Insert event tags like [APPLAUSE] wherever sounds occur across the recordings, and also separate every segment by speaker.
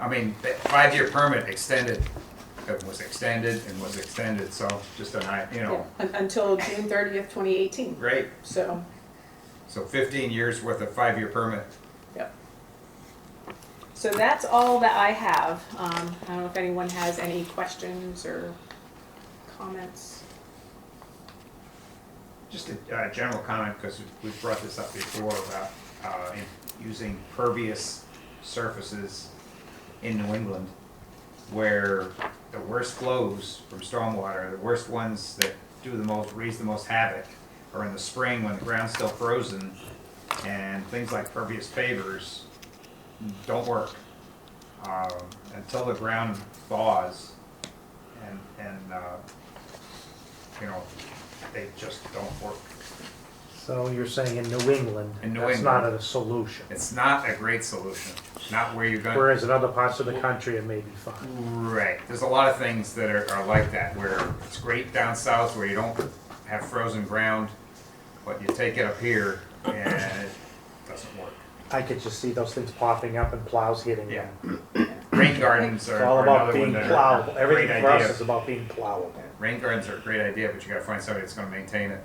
Speaker 1: I mean, that five-year permit extended, it was extended and was extended, so just a night, you
Speaker 2: Yeah,
Speaker 1: know,
Speaker 2: un- Until June thirtieth, twenty eighteen,
Speaker 1: great.
Speaker 2: so,
Speaker 1: So fifteen years worth of five-year permit.
Speaker 2: yep. So that's all that I have. Um, I don't know if anyone has any questions or comments.
Speaker 1: Just a uh, general comment, because we've brought this up before about uh, in- using pervious surfaces in New England, where the worst flows from stormwater, the worst ones that do the most, raise the most havoc, are in the spring when the ground's still frozen, and things like pervious pavers don't work um, until the ground thaws and, and, uh, you know, they just don't work.
Speaker 3: So you're saying in New England,
Speaker 1: In New
Speaker 3: that's not
Speaker 1: England.
Speaker 3: a solution.
Speaker 1: It's not a great solution. Not where you're going.
Speaker 3: Whereas in other parts of the country, it may be fine.
Speaker 1: Right. There's a lot of things that are, are like that where it's great down south where you don't have frozen ground, but you take it up here and it doesn't work.
Speaker 3: I could just see those things popping up and plows hitting
Speaker 1: Yeah.
Speaker 3: them.
Speaker 1: Rain gardens are,
Speaker 3: It's all
Speaker 1: are
Speaker 3: about
Speaker 1: another one
Speaker 3: being
Speaker 1: that
Speaker 3: plowable.
Speaker 1: are a great
Speaker 3: Everything for us
Speaker 1: idea.
Speaker 3: is about being plowable.
Speaker 1: Rain gardens are a great idea, but you got to find somebody that's going to maintain it.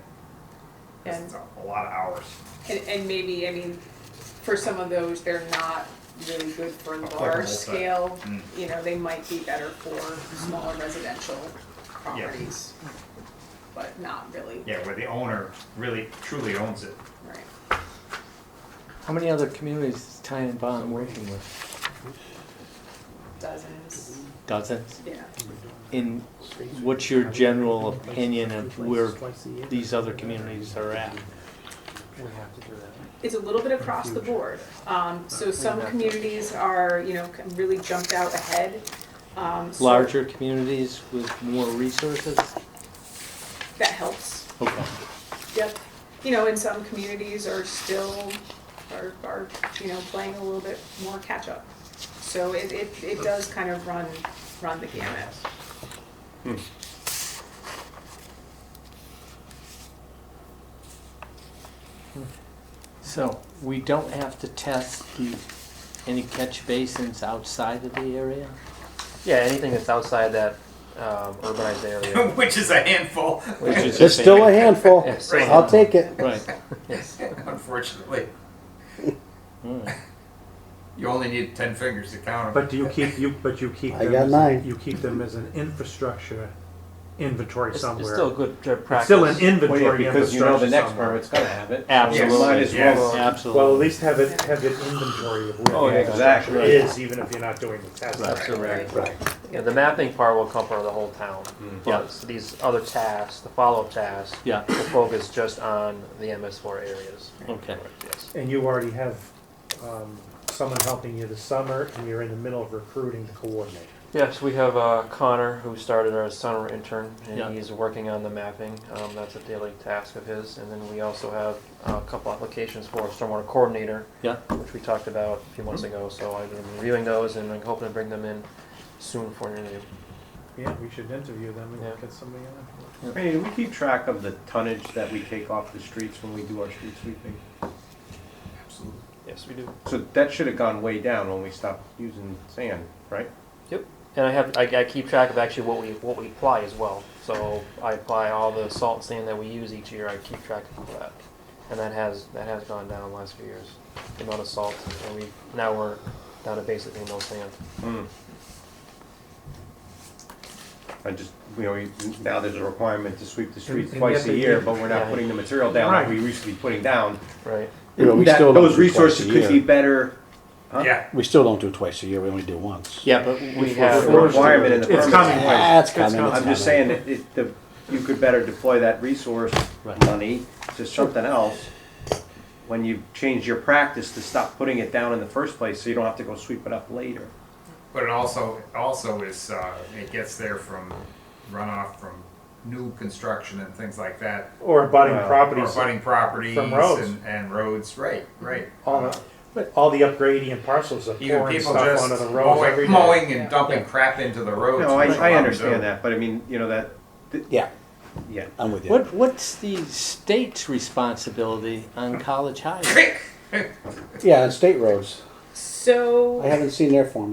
Speaker 1: 'Cause
Speaker 2: And-
Speaker 1: It's a, a lot of hours.
Speaker 2: And, and maybe, I mean, for some of those, they're not really good for
Speaker 1: Applicable,
Speaker 2: large
Speaker 1: but-
Speaker 2: scale.
Speaker 1: Mm.
Speaker 2: You know, they might be better for smaller residential
Speaker 1: Yeah.
Speaker 2: properties, but not really,
Speaker 1: Yeah, where the owner really truly owns it.
Speaker 2: right?
Speaker 4: How many other communities is Ty and Bond working with?
Speaker 2: Dozens,
Speaker 4: Dozens.
Speaker 2: yeah.
Speaker 4: In what's your general opinion of where these other communities are at?
Speaker 3: We have to do that.
Speaker 2: It's a little bit across the board. Um, so some communities are, you know, really jumped out ahead. Um, so
Speaker 4: Larger communities with more resources?
Speaker 2: That helps.
Speaker 4: Okay.
Speaker 2: Yep. You know, and some communities are still, are, are, you know, playing a little bit more catch up. So it, it, it does kind of run, run the gamut.
Speaker 4: So we don't have to test the, any catch basins outside of the area?
Speaker 5: Yeah, anything that's outside that um,
Speaker 3: [LAUGHS]
Speaker 5: urbanized area.
Speaker 1: [LAUGHS] Which is a handful,
Speaker 5: Which
Speaker 1: [LAUGHS]
Speaker 5: is
Speaker 6: There's still a handful.
Speaker 5: Yes.
Speaker 6: I'll take it.
Speaker 4: Right.
Speaker 5: Yes.
Speaker 1: [LAUGHS] unfortunately.
Speaker 4: All right.
Speaker 1: You only need 10 fingers to count them.
Speaker 3: But do you keep, you, but you keep
Speaker 6: I
Speaker 3: them,
Speaker 6: got
Speaker 3: as-
Speaker 6: nine.
Speaker 3: you keep them as an infrastructure inventory
Speaker 5: It's,
Speaker 3: somewhere.
Speaker 5: it's still good to
Speaker 3: It's
Speaker 5: practice.
Speaker 3: still an
Speaker 7: Well, yeah,
Speaker 3: inventory
Speaker 7: because you know the
Speaker 3: infrastructure
Speaker 7: next
Speaker 3: somewhere.
Speaker 7: permit's gonna have it. Might as
Speaker 4: Absolutely.
Speaker 1: well.
Speaker 3: Well, at
Speaker 4: Absolutely.
Speaker 3: least have it, have an inventory of
Speaker 7: Oh,
Speaker 3: where the infrastructure
Speaker 7: exactly.
Speaker 3: is, even if you're not doing the test.
Speaker 7: That's correct.
Speaker 3: Right.
Speaker 5: Yeah, the mapping part will cover the whole town.
Speaker 4: Mm.
Speaker 5: But these other tasks, the follow-up tasks,
Speaker 4: Yeah,
Speaker 5: will focus just on the MS4 areas.
Speaker 4: okay.
Speaker 5: Yes.
Speaker 3: And you already have um, someone helping you this summer, and you're in the middle of recruiting the coordinator.
Speaker 5: Yes, we have uh, Connor, who started our summer intern, and
Speaker 4: Yeah.
Speaker 5: he's working on the mapping. Um, that's a daily task of his. And then we also have uh, a couple applications for a stormwater coordinator,
Speaker 4: Yeah.
Speaker 5: which we talked about a few months ago. So I've been reviewing those, and I'm hoping to bring them in soon for an interview.
Speaker 3: Yeah, we should interview them
Speaker 5: Yeah.
Speaker 3: and get somebody on.
Speaker 7: Hey, do we keep track of the tonnage that we take off the streets when we do our street sweeping.
Speaker 1: Absolutely.
Speaker 5: Yes, we do.
Speaker 7: So that should have gone way down when we stopped using sand, right?
Speaker 5: And I have I, I keep track of actually what we what we apply as well. So I apply all the salt and sand that we use each year. I keep track of that, and that has that has gone down the last few years. The amount of salt, and we now we're down to basically no sand.
Speaker 7: Hmm. I just, you know, we- now there's a requirement to sweep the
Speaker 3: And-
Speaker 7: streets
Speaker 3: and yet
Speaker 7: twice a
Speaker 3: they
Speaker 7: year,
Speaker 3: did-
Speaker 7: but we're not
Speaker 5: yeah.
Speaker 7: putting the material down
Speaker 3: Right.
Speaker 7: that we used to be putting down.
Speaker 5: Right.
Speaker 6: You know, we
Speaker 7: That-
Speaker 6: still don't
Speaker 7: Those
Speaker 6: do twice a
Speaker 7: resources could
Speaker 6: year.
Speaker 7: be better. Huh?
Speaker 1: Yeah.
Speaker 6: We still don't do twice a year. We only do once.
Speaker 4: Yeah, but
Speaker 5: We
Speaker 4: we
Speaker 7: The
Speaker 5: have
Speaker 7: requirement in the
Speaker 3: It's
Speaker 7: permit.
Speaker 3: coming.
Speaker 6: That's
Speaker 3: It's
Speaker 6: coming.
Speaker 3: coming.
Speaker 6: It's
Speaker 7: I'm just saying
Speaker 6: coming.
Speaker 7: that it, the, you could better deploy that resource
Speaker 4: Right.
Speaker 7: money to something else when you change your practice to stop putting it down in the first place, so you don't have to go sweep it up later.
Speaker 1: But it also, it also is, uh, it gets there from runoff from new construction and things like that.
Speaker 3: Or abutting
Speaker 7: Well,
Speaker 1: Or
Speaker 3: properties,
Speaker 1: budding properties
Speaker 3: From roads.
Speaker 1: and, and roads, right, right.
Speaker 3: all the, but all the upgrading parcels of
Speaker 1: Even
Speaker 3: pouring
Speaker 1: people
Speaker 3: stuff onto
Speaker 1: just
Speaker 3: the roads every
Speaker 1: mowing,
Speaker 3: day.
Speaker 1: mowing and dumping
Speaker 4: Yeah.
Speaker 1: crap into the roads.
Speaker 7: No, I,
Speaker 1: which a lot
Speaker 7: I
Speaker 1: of do.
Speaker 7: understand that, but I mean, you know, that, th-
Speaker 6: Yeah,
Speaker 7: yeah.
Speaker 6: I'm with you.
Speaker 4: What, what's the state's responsibility on college highways?
Speaker 6: Yeah, and state roads.
Speaker 2: So.
Speaker 6: I haven't seen their form yet.